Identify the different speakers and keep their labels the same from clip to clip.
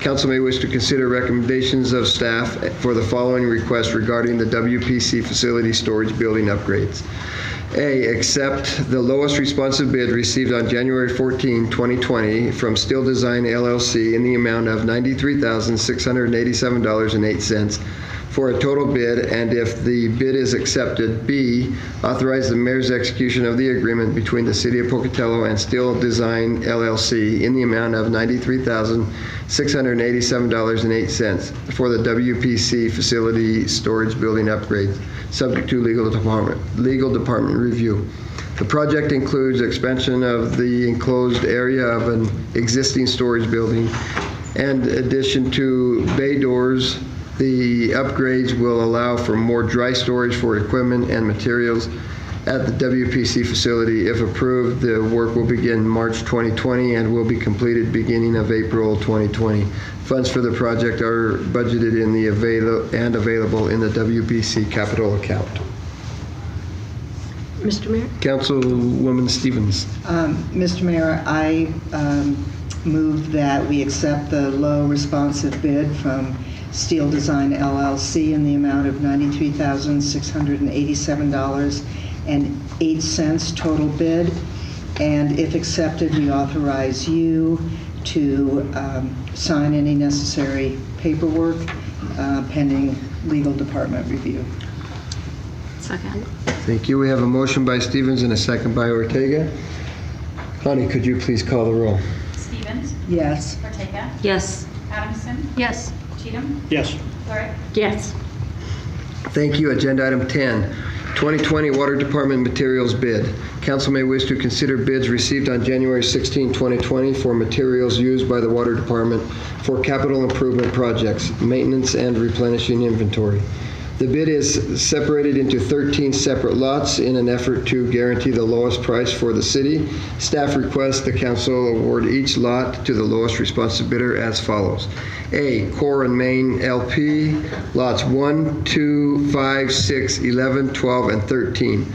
Speaker 1: Council may wish to consider recommendations of staff for the following requests regarding the WPC facility storage building upgrades. A, accept the lowest responsive bid received on January 14, 2020 from Steel Design LLC in the amount of $93,687.08 for a total bid, and if the bid is accepted, B, authorize the mayor's execution of the agreement between the City of Pocatello and Steel Design LLC in the amount of $93,687.08 for the WPC facility storage building upgrades, subject to legal department, legal department review. The project includes expansion of the enclosed area of an existing storage building and addition to bay doors, the upgrades will allow for more dry storage for equipment and materials at the WPC facility. If approved, the work will begin March 2020 and will be completed beginning of April 2020. Funds for the project are budgeted in the avail, and available in the WPC capital account.
Speaker 2: Mr. Mayor?
Speaker 1: Councilwoman Stevens.
Speaker 3: Um, Mr. Mayor, I um, move that we accept the low responsive bid from Steel Design LLC in the amount of $93,687.08 total bid. And if accepted, we authorize you to um, sign any necessary paperwork uh, pending legal department review.
Speaker 2: Second.
Speaker 1: Thank you. We have a motion by Stevens and a second by Ortega. Connie, could you please call the roll?
Speaker 4: Stevens,
Speaker 3: Yes.
Speaker 4: Ortega,
Speaker 2: Yes.
Speaker 4: Adamson,
Speaker 2: Yes.
Speaker 4: Cheatham,
Speaker 5: yes,
Speaker 4: Lurick,
Speaker 2: Yes.
Speaker 1: Thank you. Agenda item 10, 2020 Water Department Materials Bid. Council may wish to consider bids received on January 16, 2020 for materials used by the Water Department for capital improvement projects, maintenance, and replenishing inventory. The bid is separated into 13 separate lots in an effort to guarantee the lowest price for the city. Staff requests the council award each lot to the lowest responsive bidder as follows. A, Core and Main LP, lots 1, 2, 5, 6, 11, 12, and 13,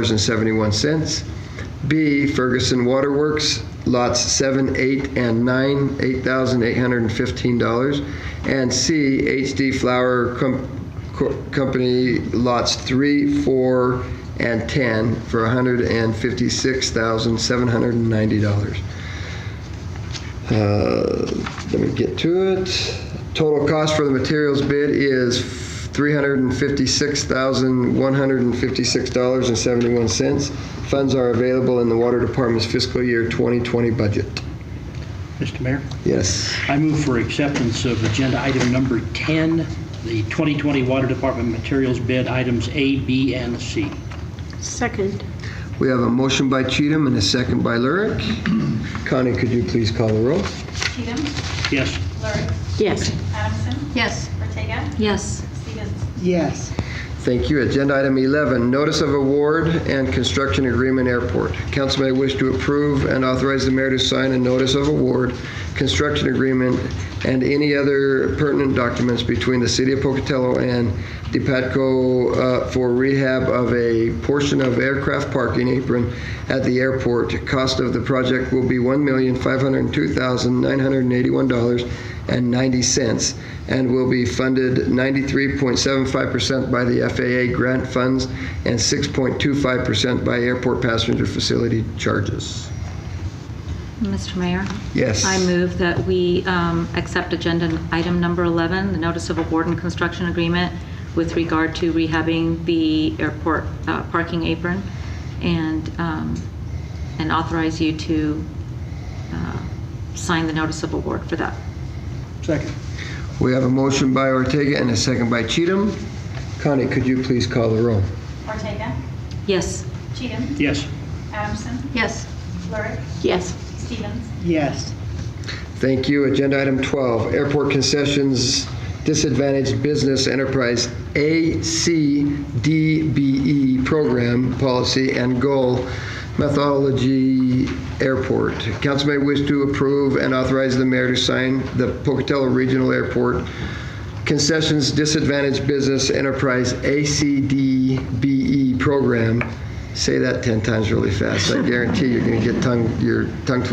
Speaker 1: $190,551.71. B, Ferguson Waterworks, lots 7, 8, and 9, $8,815. And C, HD Flower Com- Co- Company, lots 3, 4, and 10, for $156,790. Uh, Let me get to it. Total cost for the materials bid is $356,156.71. Funds are available in the Water Department's fiscal year 2020 budget.
Speaker 5: Mr. Mayor.
Speaker 1: Yes.
Speaker 5: I move for acceptance of agenda item number 10, the 2020 Water Department Materials Bid, items A, B, and C.
Speaker 2: Second.
Speaker 1: We have a motion by Cheatham and a second by Lurick. Connie, could you please call the roll?
Speaker 4: Cheatham,
Speaker 5: Yes,
Speaker 4: Lurick,
Speaker 2: Yes.
Speaker 4: Adamson,
Speaker 2: Yes.
Speaker 4: Ortega,
Speaker 2: Yes.
Speaker 4: Stevens.
Speaker 3: Yes.
Speaker 1: Thank you. Agenda item 11, notice of award and construction agreement airport. Council may wish to approve and authorize the mayor to sign a notice of award, construction agreement, and any other pertinent documents between the city of Pocatello and DePatco uh, for rehab of a portion of aircraft parking apron at the airport. Cost of the project will be $1,502,981 and 90 cents, and will be funded 93.75% by the FAA grant funds and 6.25% by airport passenger facility charges.
Speaker 6: Mr. Mayor,
Speaker 1: Yes.
Speaker 6: I move that we um, accept agenda item number 11, the notice of award and construction agreement with regard to rehabbing the airport uh, parking apron and, um, and authorize you to uh, sign the notice of award for that.
Speaker 5: second.
Speaker 1: We have a motion by Ortega and a second by Cheatham. Connie, could you please call the roll?
Speaker 4: Ortega,
Speaker 6: Yes,
Speaker 4: Cheatham,
Speaker 5: Yes,
Speaker 4: Adamson,
Speaker 2: Yes.
Speaker 4: Lurick,
Speaker 2: Yes.
Speaker 4: Stevens.
Speaker 3: Yes.
Speaker 1: Thank you. Agenda item 12, Airport Concessions Disadvantaged Business Enterprise ACDBE E Program Policy and Goal Methodology Airport. Council may wish to approve and authorize the mayor to sign the Pocatello Regional Airport Concessions Disadvantaged Business Enterprise E ACDBE Program. Say that 10 times really fast. I guarantee you're going to get tongue, your tongue twisted.